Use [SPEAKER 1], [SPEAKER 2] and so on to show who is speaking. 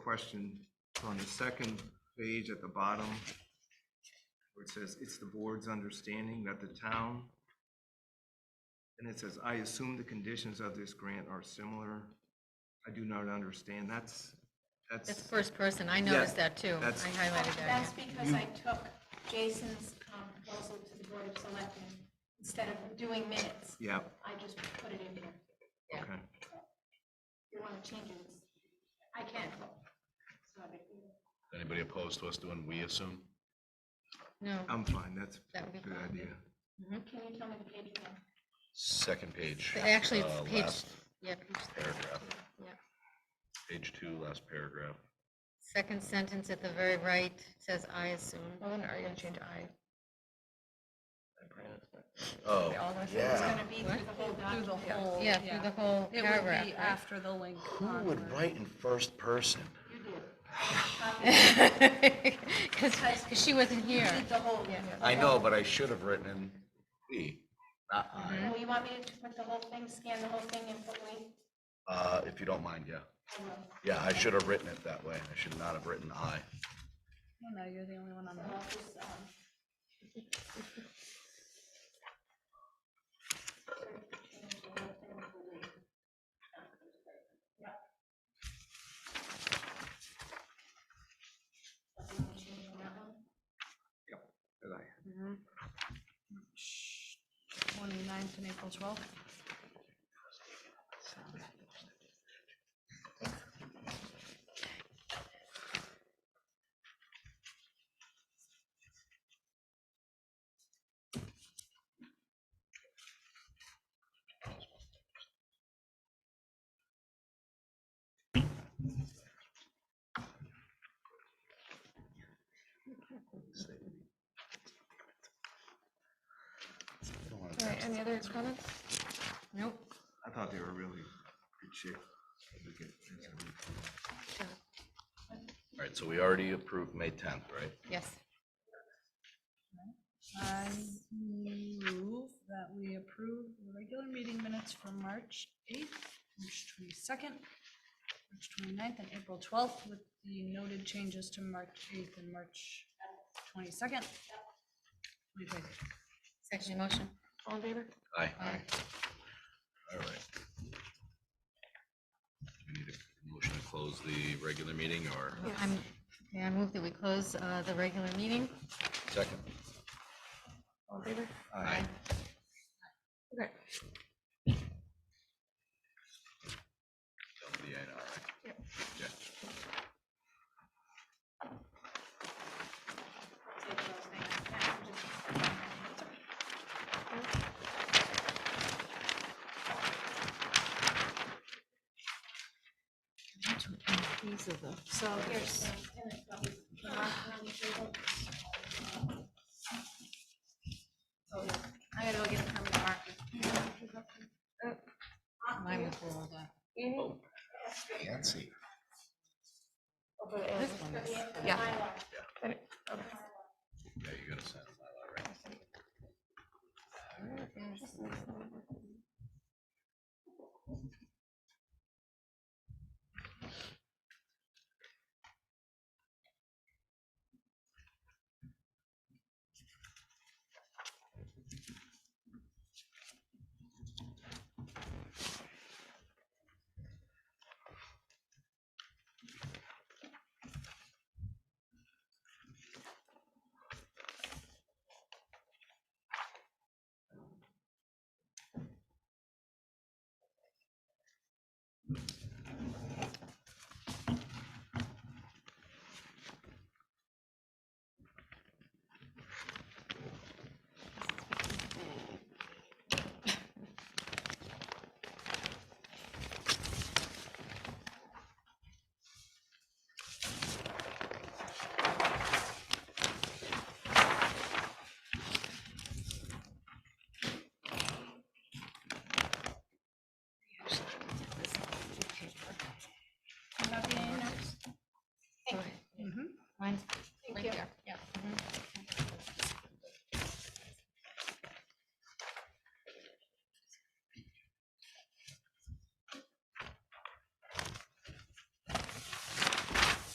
[SPEAKER 1] question. So On the second page at the bottom, where it says, "It's the board's understanding that the town," and it says, "I assume the conditions of this grant are similar." I do not understand. That's, that's.
[SPEAKER 2] That's first person, I
[SPEAKER 1] Yeah,
[SPEAKER 2] noticed that too. I
[SPEAKER 1] that's-
[SPEAKER 2] highlighted that.
[SPEAKER 3] That's because I took Jason's um, proposal to the Board of Selectmen, instead of doing minutes,
[SPEAKER 1] Yeah,
[SPEAKER 3] I just put it in here.
[SPEAKER 2] Yeah.
[SPEAKER 1] okay.
[SPEAKER 3] If you want to change it, I can. It's not a big deal.
[SPEAKER 4] Anybody opposed to us doing we assume?
[SPEAKER 2] No,
[SPEAKER 1] I'm fine. That's a
[SPEAKER 2] That would be
[SPEAKER 1] good
[SPEAKER 2] fine.
[SPEAKER 1] idea.
[SPEAKER 3] Can you tell me the page again?
[SPEAKER 4] Second page.
[SPEAKER 2] But actually, it's
[SPEAKER 4] uh,
[SPEAKER 2] page,
[SPEAKER 4] last
[SPEAKER 2] yeah, page-
[SPEAKER 4] Paragraph,
[SPEAKER 2] yeah.
[SPEAKER 4] page two, last paragraph.
[SPEAKER 2] second sentence at the very right says, I assume. Oh, are you gonna change I?
[SPEAKER 4] Oh,
[SPEAKER 3] It's
[SPEAKER 4] yeah.
[SPEAKER 3] going to be through the whole
[SPEAKER 5] Through the
[SPEAKER 3] document.
[SPEAKER 5] whole.
[SPEAKER 2] Yeah, through the whole
[SPEAKER 5] It would
[SPEAKER 2] paragraph.
[SPEAKER 5] be
[SPEAKER 2] right?
[SPEAKER 5] after the link. um,
[SPEAKER 4] Who would write in first person?
[SPEAKER 3] You did.
[SPEAKER 2] Because she wasn't here.
[SPEAKER 3] You did the whole.
[SPEAKER 4] I know, but I should have written in we, not I.
[SPEAKER 3] Oh, you want me to put the whole thing, scan the whole thing and put we?
[SPEAKER 4] Uh, if you don't mind, yeah.
[SPEAKER 3] I will.
[SPEAKER 4] Yeah, I should have written it that way. I should not have written I.
[SPEAKER 5] No, you're the only one on
[SPEAKER 3] So
[SPEAKER 5] the.
[SPEAKER 3] I'll just, um, change the whole thing to we. Yeah. Nothing to change on that one?
[SPEAKER 1] Good idea.
[SPEAKER 5] Twenty-ninth and April twelfth.
[SPEAKER 2] All right, any other comments? Nope.
[SPEAKER 1] I thought they were really good shape. We could- that's a good-
[SPEAKER 2] Sure.
[SPEAKER 4] All right, so we already approved May tenth, right?
[SPEAKER 2] Yes.
[SPEAKER 5] I move that we approve the regular meeting minutes for March eighth, March twenty-second, March 29th, and April twelfth with the noted changes to March eighth and March twenty-second.
[SPEAKER 2] Second motion. All in favor?
[SPEAKER 4] Aye.
[SPEAKER 2] Aye.
[SPEAKER 4] All right. We need a motion to close the regular meeting or
[SPEAKER 2] I'm, yeah, I move that we close uh, the regular meeting.
[SPEAKER 4] second?
[SPEAKER 2] All in favor?
[SPEAKER 4] Aye.
[SPEAKER 2] Okay.
[SPEAKER 4] That would be aye, all right. Yeah.
[SPEAKER 3] Take those things back and just- So here's. I gotta go get a permanent marker.
[SPEAKER 2] Mine was rolled up.
[SPEAKER 4] Nancy.
[SPEAKER 2] Oh,
[SPEAKER 3] Yeah.
[SPEAKER 4] Yeah, you gotta sign my law, right?
[SPEAKER 2] Mm-hmm. Mine's